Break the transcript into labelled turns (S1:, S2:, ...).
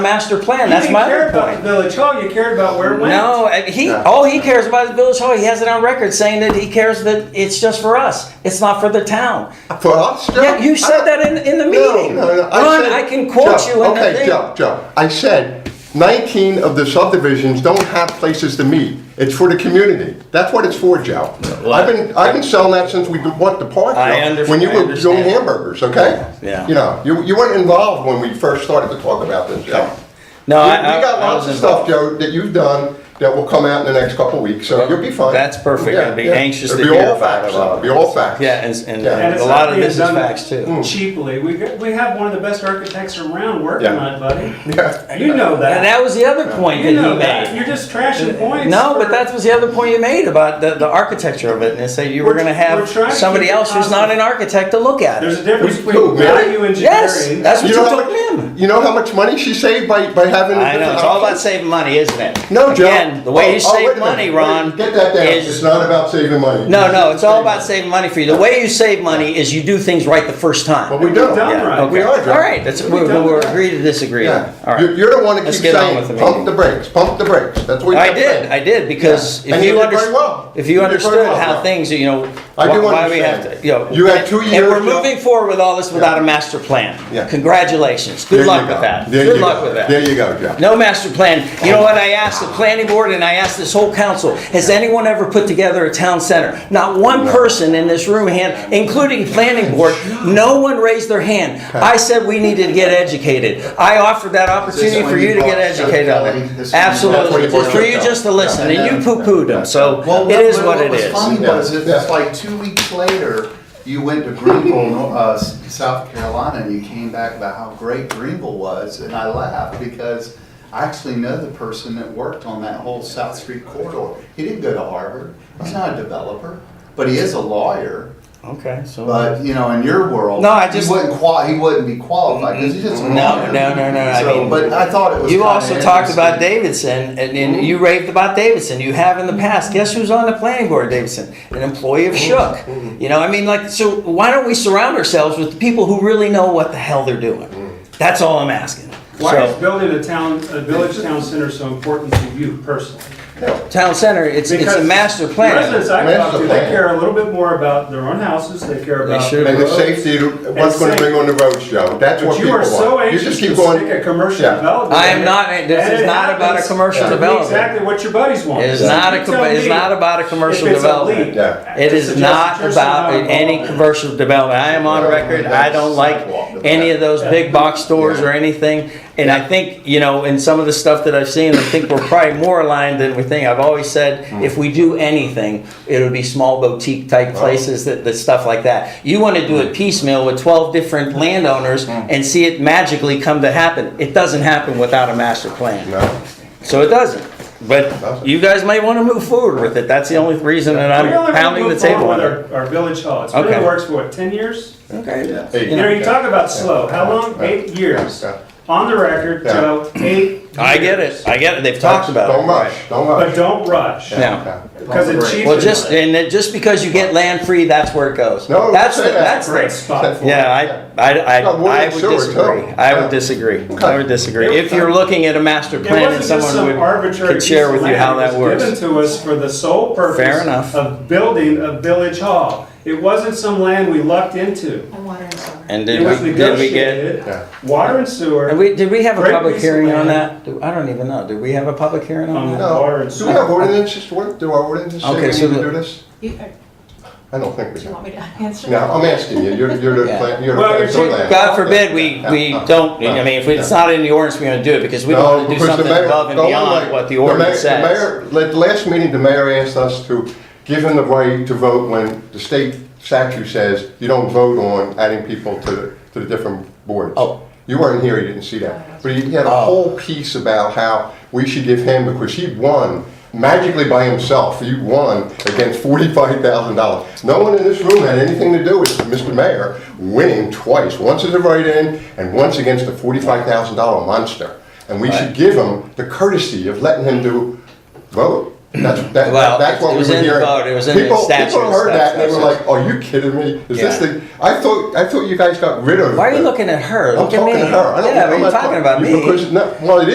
S1: master plan.
S2: You
S1: That's
S2: didn't
S1: my
S2: care
S1: other
S2: about
S1: point.
S2: the Village hall, you cared about where it went.
S1: No, I- he
S3: No.
S1: all he cares about is Village Hall. He has it on record saying that he cares that it's just for us. It's not for the town.
S3: For us, Joe?
S1: Yeah, you said that in, in the meeting.
S3: No, no, no.
S1: Ron,
S3: said-
S1: I can quote
S3: Joe,
S1: you in the
S3: Okay,
S1: thing.
S3: Joe, Joe, I said 19 of the subdivisions don't have places to meet. It's for the community. That's what it's for, Joe. I've been, I've been selling that since we bought the park,
S1: I
S3: Joe,
S1: under-
S3: When you
S1: I
S3: were doing
S1: understand.
S3: hamburgers, okay?
S1: Yeah.
S3: You know, you, you weren't involved when we first started to talk about this, Joe.
S1: No,
S3: We
S1: I, I,
S3: we got
S1: I
S3: lots
S1: was
S3: of stuff,
S1: involved.
S3: Joe, that you've done that will come out in the next couple of weeks, so you'll be fine.
S1: That's perfect.
S3: Yeah,
S1: I'd be
S3: yeah.
S1: anxious
S3: It'll
S1: to
S3: be
S1: hear
S3: all
S1: about
S3: facts,
S1: it all.
S3: It'll Be all facts.
S1: Yeah, and, and,
S3: Yeah.
S1: and
S2: And it's
S1: a lot
S2: not
S1: of
S2: being
S1: this is
S2: done
S1: facts too.
S2: Cheaply, we, got- we have one of the best architects around working
S3: Yeah.
S2: on it, buddy.
S3: Yeah.
S2: You know
S1: And
S2: that.
S1: that was the other point
S2: You
S1: that
S2: know
S1: he
S2: that. You're
S1: made.
S2: just trashing points.
S1: No,
S2: for-
S1: but that was the other point you made about the, the architecture of it, and it's that you were
S2: We're-
S1: gonna
S2: we're
S1: have
S2: trying to
S1: somebody
S2: keep it
S1: else who's not
S2: positive.
S1: an architect to look at
S2: There's
S1: it.
S2: a difference
S3: Who-
S2: between
S3: who, Mary?
S2: value
S1: Yes,
S2: engineering.
S1: that's what
S3: You
S1: you
S3: know,
S1: told
S3: how
S1: him.
S3: much, you know how much money she saved by, by having.
S1: I know, it's all about saving money, isn't it?
S3: No, Joe.
S1: Again, the
S3: Oh,
S1: way you
S3: oh, wait
S1: save
S3: a minute.
S1: money,
S3: Wait,
S1: Ron,
S3: Get that down. It's
S1: is,
S3: not about saving money.
S1: no, no, it's all about saving money for you. The way you save money is you do things right the first
S3: But
S1: time.
S3: we don't.
S2: done
S1: Yeah,
S2: right.
S1: okay.
S3: We are, Joe.
S1: All right, that's, we- we'll agree to disagree. All
S3: Yeah.
S1: right.
S3: You're, you're the one that
S1: Let's
S3: keeps
S1: get on with
S3: saying,
S1: the
S3: pump
S1: meeting."
S3: the brakes, pump the brakes. That's what you
S1: I
S3: kept
S1: did,
S3: saying.
S1: I did, because
S3: Yeah.
S1: if
S3: And you
S1: you
S3: did very well.
S1: understood, if
S3: You
S1: you
S3: did very
S1: understood
S3: well,
S1: how
S3: Joe.
S1: things, you know,
S3: I
S1: why
S3: do
S1: why we
S3: understand.
S1: have to, you know.
S3: You had two years,
S1: And we're
S3: Joe.
S1: moving forward with all this without a master plan.
S3: Yeah.
S1: Congratulations,
S3: There
S1: good
S3: you
S1: luck
S3: go.
S1: with that,
S3: There
S1: good
S3: you
S1: luck
S3: go.
S1: with that.
S3: There you go, Joe.
S1: No master plan. You know what? I asked the planning board and I asked this whole council, has anyone ever put together a town center? Not one person in this room hand, including planning board, no one raised their hand. I said we needed to get educated. I offered that opportunity for you to get educated on it. Absolutely, for you just to listen and you poo-pooed them, so
S4: Well,
S1: it
S4: what-
S1: is what it
S4: was
S1: is.
S4: funny
S3: Yeah.
S4: was it was like two weeks later, you went to Greenville, no- uh, S- South Carolina, and you came back about how great Greenville was, and I laughed because I actually know the person that worked on that whole South Street corridor. He didn't go to Harvard. He's not a developer, but he is a lawyer.
S1: Okay, so.
S4: But you know, in your world,
S1: No, I just-
S4: he wouldn't qual- he wouldn't be qualified because he's just a
S1: No,
S4: lawyer.
S1: no, no, no, I
S4: So,
S1: mean-
S4: but I thought it was.
S1: You
S4: kinda
S1: also talked about
S4: interesting.
S1: Davidson, and, and you raved about Davidson. You have in the past. Guess who's on the planning board, Davidson? An employee of Shook. You know, I mean, like, so why don't we surround ourselves with the people who really know what the hell they're doing? That's all I'm asking.
S2: Hmm. Why is
S1: So,
S2: building a town, a village town center so important to you personally?
S1: town center, it's, it's a
S2: Because
S1: master
S2: Residents
S1: plan.
S2: I talk
S3: Master
S2: to, they
S3: plan.
S2: care a little bit more about their own houses, they care
S1: They
S2: about.
S1: should.
S3: And the
S2: roads.
S3: safety, what's gonna
S2: safety.
S3: bring on the roads, Joe? That's what
S2: But you
S3: people
S2: are so
S3: want. You
S2: anxious
S3: just
S2: to
S3: keep going.
S2: stick a commercial
S3: Yeah.
S2: development.
S1: I am
S2: in.
S1: not- this
S2: And
S1: is
S2: it
S1: not about a
S2: happens
S1: commercial
S2: to be
S1: development.
S2: Exactly what your buddies want.
S1: It is
S2: So
S1: not a
S2: you
S1: com-
S2: tell
S1: it's
S2: me
S1: not about a
S2: if
S1: commercial
S2: it's a
S1: development.
S2: leak.
S3: Yeah.
S1: It is
S2: Suggest that
S1: not
S2: you're
S1: about
S2: not
S1: any
S2: involved.
S1: commercial development. I am on record. I don't like any of those big box stores or anything. And I think, you know, in some of the stuff that I've seen, I think we're probably more aligned than we think. I've always said, if we do anything, it'll be small boutique type places that, that stuff like that. You wanna do it piecemeal with twelve different landowners and see it magically come to happen. It doesn't happen without a master plan.
S3: No.
S1: So it doesn't. But
S3: Doesn't.
S1: you guys might want to move forward with it. That's the only reason that
S2: We're only
S1: I'm
S2: gonna
S1: pounding the
S2: move
S1: table
S2: forward
S1: on it.
S2: with Our our village hall, it's been in
S1: Okay.
S2: the works for what, ten years?
S1: Okay.
S3: Hey,
S2: You know,
S1: Yeah.
S2: you talk about slow, how long?
S3: Yeah.
S2: Eight years.
S3: Yeah.
S2: On the record,
S3: Yeah.
S2: Joe, eight.
S1: I get
S2: years.
S1: it. I get it. They've talked about
S3: Don't
S1: it.
S3: rush, don't
S2: But
S3: rush.
S2: don't rush,
S1: Yeah.
S2: because it cheapens.
S1: Well, just, and then just because you get land free, that's where it goes.
S3: No,
S1: That's, the
S3: say that.
S1: that's,
S2: Great spot for it.
S1: yeah, I, I, I,
S3: No, more
S1: I
S3: than
S1: would
S3: sewer, too.
S1: disagree. I
S3: Yeah.
S1: would disagree. I
S3: Okay.
S1: would disagree.
S2: It-
S1: If you're looking at a master
S2: It
S1: plan and
S2: wasn't just
S1: someone
S2: some
S1: would,
S2: arbitrary
S1: could
S2: piece
S1: share with
S2: of
S1: you how
S2: land.
S1: that
S2: It was
S1: works.
S2: Given to us for the sole purpose.
S1: Fair enough.
S2: Of building a village hall. It wasn't some land we lucked into.
S5: And water and sewer.
S1: And
S2: It
S1: did
S2: was
S1: we, did we get?
S2: negotiated,
S3: Yeah.
S2: water and sewer.
S1: And we, did we have a
S2: Great
S1: public
S2: piece of
S1: hearing on
S2: land.
S1: that? Do- I don't even know. Did we have a public hearing on
S2: Um,
S1: that?
S3: No. Do we have ordinances, what, do our ordinances say we
S1: Okay,
S3: need
S1: so
S3: to
S1: the-
S3: do this?
S5: You, uh,
S3: I don't think we
S5: do you
S3: do.
S5: want me to answer?
S3: No, I'm asking you, you're, you're the
S1: Yeah.
S3: plan, you're the
S2: Well,
S3: plan.
S2: you're
S3: for
S2: cheap-
S3: land.
S1: God forbid we, we
S3: Yeah.
S1: don't, I mean, if it's not in the ordinance, we don't do it because we don't want to do
S3: because the
S1: something
S3: mayor-
S1: above and
S3: don't
S1: beyond
S3: like-
S1: what the
S3: mayor-
S1: ordinance
S3: the
S1: says.
S3: mayor- At the last meeting, the mayor asked us to give him the right to vote when the state statute says you don't vote on adding people to, the- to the different boards.
S1: Oh.
S3: You weren't here, you didn't see that. But he he had a
S1: Oh.
S3: whole piece about how we should give him, because he won magically by himself, he won against forty-five thousand dollars. No one in this room had anything to do with Mr. Mayor winning twice, once as a write-in and once against a forty-five thousand dollar monster. And we should give him the courtesy of letting him do vote. That's, that- that,
S1: Well,
S3: that's what
S1: it
S3: we
S1: was
S3: were
S1: in the
S3: hearing.
S1: vote, it was in the
S3: People-
S1: statute
S3: People
S1: and
S3: heard
S1: stuff,
S3: that and they
S1: that's
S3: were
S1: it.
S3: like, are you kidding me? Is this
S1: Yeah.
S3: thing, I thought, I thought you guys got rid of.
S1: Why are you
S3: the-
S1: looking at her?
S3: I'm
S1: Look at
S3: talking
S1: me.
S3: to her. I don't-
S1: Yeah, but
S3: I'm
S1: you're
S3: not
S1: talking about me.
S3: Because, no, well, it